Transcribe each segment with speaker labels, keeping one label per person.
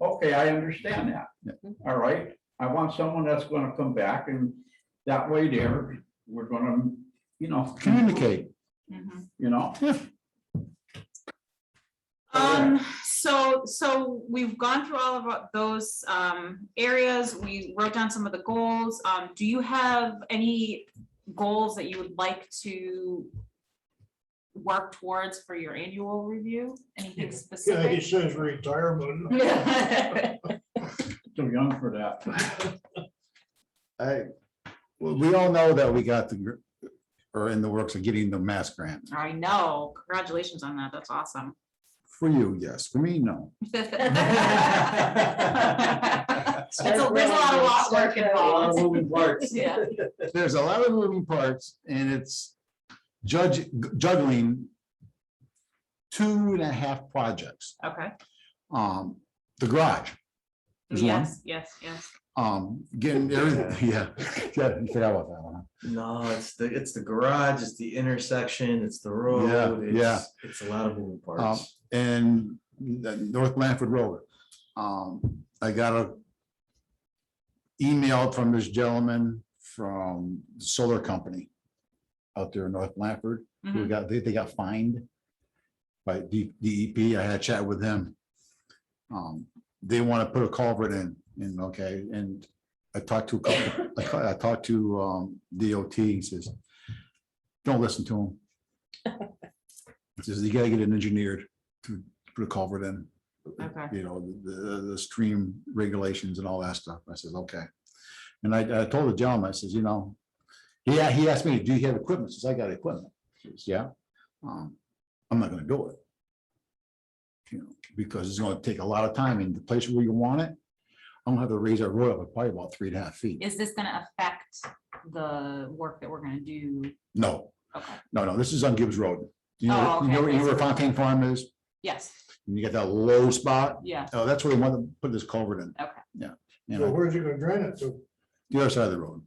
Speaker 1: Okay, I understand
Speaker 2: Yeah.
Speaker 1: that. All right, I want someone that's gonna come back and that way there, we're gonna, you know.
Speaker 2: Communicate.
Speaker 1: You know,
Speaker 3: Um, so, so we've gone through all of our- those, um, areas, we wrote down some of the goals, um, do you have any goals that you would like to work towards for your annual review, anything
Speaker 4: Yeah, he
Speaker 3: specific?
Speaker 4: says retirement.
Speaker 1: too young for that.
Speaker 2: I, well, we all know that we got the, gr- or in the works of getting the mass grant.
Speaker 3: I know, congratulations on that, that's awesome.
Speaker 2: For you, yes. For me, no.
Speaker 3: It's a- There's a lot of lot work involved. Yeah.
Speaker 2: There's a lot of moving parts and it's judge, juggling two and a half projects.
Speaker 3: Okay,
Speaker 2: Um, the garage. is one.
Speaker 3: yes, yes, yes,
Speaker 2: Um, getting everything, yeah, yeah, you forgot about that one.
Speaker 5: No, it's the, it's the garage, it's the intersection, it's the road.
Speaker 2: Yeah,
Speaker 5: it's-
Speaker 2: yeah. Um,
Speaker 5: It's a lot of moving parts.
Speaker 2: and the North Lanford Road. Um, I got a email from this gentleman from solar company out there in North Lanford. who
Speaker 3: Mhm.
Speaker 2: got, they, they got fined by D- DEP. I had a chat with them. Um, they want to put a culvert in, and okay, and I talked to, a couple- I ca- I talked to, um, DOT, he says, don't listen to him. He Says you gotta get it engineered to put a culvert in,
Speaker 3: okay,
Speaker 2: you know, the, the, the stream regulations and all that stuff. I says, okay. And I, I told the gentleman, I says, you know, yeah, he asked me, do you have equipment? I Says, I got equipment. He Says, yeah. Um, I'm not gonna do it. You know, because it's gonna take a lot of time and the place where you want it, I'm gonna have to raise our road up probably about three and a half feet.
Speaker 3: is this gonna affect the work that we're gonna do?
Speaker 2: No,
Speaker 3: Okay,
Speaker 2: no, no, this is on Gibbs Road. You
Speaker 3: Oh,
Speaker 2: know, you know
Speaker 3: okay.
Speaker 2: you know where Fontaine Farm is?
Speaker 3: yes,
Speaker 2: And you got that low spot.
Speaker 3: yeah,
Speaker 2: Oh, that's where they want to put this culvert in.
Speaker 3: Okay.
Speaker 2: Yeah. You
Speaker 4: So
Speaker 2: know,
Speaker 4: where's he gonna drain it to?
Speaker 2: the other side of the road.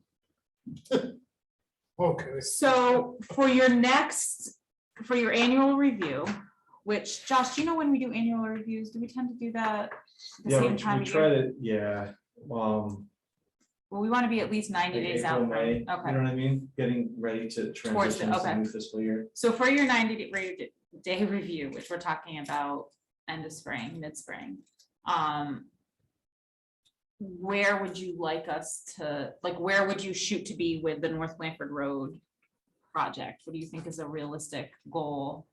Speaker 4: Okay,
Speaker 3: So for your next, for your annual review, which Josh, do you know when we do annual reviews? Do we tend to do that? the
Speaker 5: Yeah, we
Speaker 3: same time
Speaker 5: we
Speaker 3: of
Speaker 5: try
Speaker 3: year?
Speaker 5: to, yeah, um.
Speaker 3: Well, we want to be at least ninety
Speaker 5: like
Speaker 3: days
Speaker 5: April,
Speaker 3: out. from-
Speaker 5: May, You know what
Speaker 3: Okay,
Speaker 5: I mean? Getting ready to
Speaker 3: the-
Speaker 5: transition to the
Speaker 3: okay.
Speaker 5: new fiscal year.
Speaker 3: so for your ninety day, re- day review, which we're talking about end of spring, mid-spring, um. Where would you like us to, like, where would you shoot to be with the North Blanford Road project? What do you think is a realistic goal?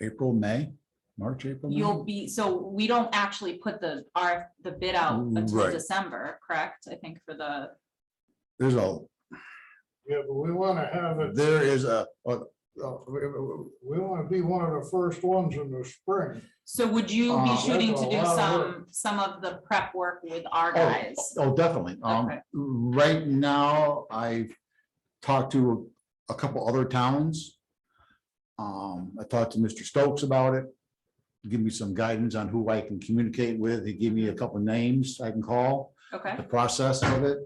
Speaker 2: April, May, March, April. May?
Speaker 3: You'll be, so we don't actually put the, our, the bid out until
Speaker 2: Mm, Right.
Speaker 3: December, correct? I think for the,
Speaker 2: There's a,
Speaker 4: yeah, but we wanna have it,
Speaker 2: there is a, oh, a-
Speaker 4: uh, we we wanna be one of the first ones in the spring.
Speaker 3: so would you
Speaker 2: Uh,
Speaker 3: be
Speaker 2: that's
Speaker 3: shooting
Speaker 4: a
Speaker 3: to do
Speaker 4: lot of work.
Speaker 3: some, some of the prep work with our
Speaker 2: oh,
Speaker 3: guys?
Speaker 2: oh, definitely. Um,
Speaker 3: Okay.
Speaker 2: right now, I've talked to a couple other towns. Um, I talked to Mr. Stokes about it. Give me some guidance on who I can communicate with. He gave me a couple names I can call,
Speaker 3: Okay,
Speaker 2: the process of it.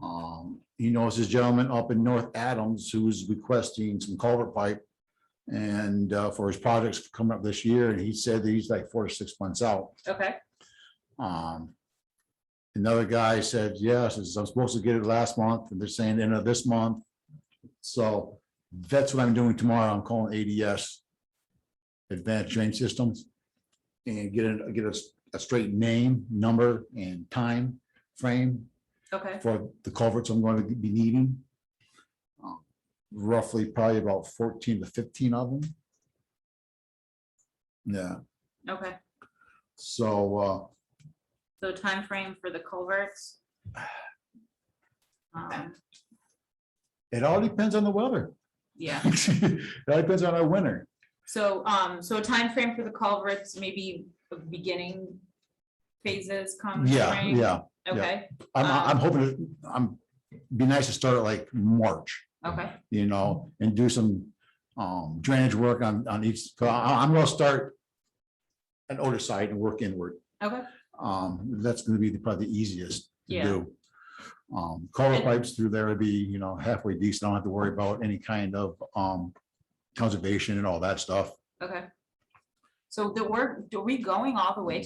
Speaker 2: Um, he knows this gentleman up in North Adams who's requesting some culvert pipe. And uh, for his projects coming up this year, and he said that he's like four to six months out.
Speaker 3: okay,
Speaker 2: Um. Another guy said, yes, I'm supposed to get it last month, and they're saying end of this month. So that's what I'm doing tomorrow. I'm calling ADS. Advanced Drain Systems. And get a, get a, s- a straight name, number, and time frame
Speaker 3: okay,
Speaker 2: for the culverts I'm going to be needing. Uh, Roughly probably about fourteen to fifteen of them. Yeah,
Speaker 3: okay.
Speaker 2: so, uh,
Speaker 3: So time frame for the culverts? Um,
Speaker 2: it all depends on the weather.
Speaker 3: Yeah,
Speaker 2: That depends on our winter.
Speaker 3: so, um, so a frame for the culverts, maybe the beginning phases come
Speaker 2: Yeah,
Speaker 3: spring?
Speaker 2: yeah.
Speaker 3: Okay,
Speaker 2: I'm,
Speaker 3: Um,
Speaker 2: I'm hoping, to- I'm, be nice to start like March,
Speaker 3: okay,
Speaker 2: you know, and do some um drainage work on, on each, 'cause I, am gonna start an older side and work inward.
Speaker 3: okay.
Speaker 2: Um, that's gonna be the- probably the easiest to
Speaker 3: Yeah.
Speaker 2: do. Um, culvert pipes through there would be, you know, halfway decent. I don't have to worry about any kind of um conservation and all that stuff.
Speaker 3: Okay. So the work, are we going all the way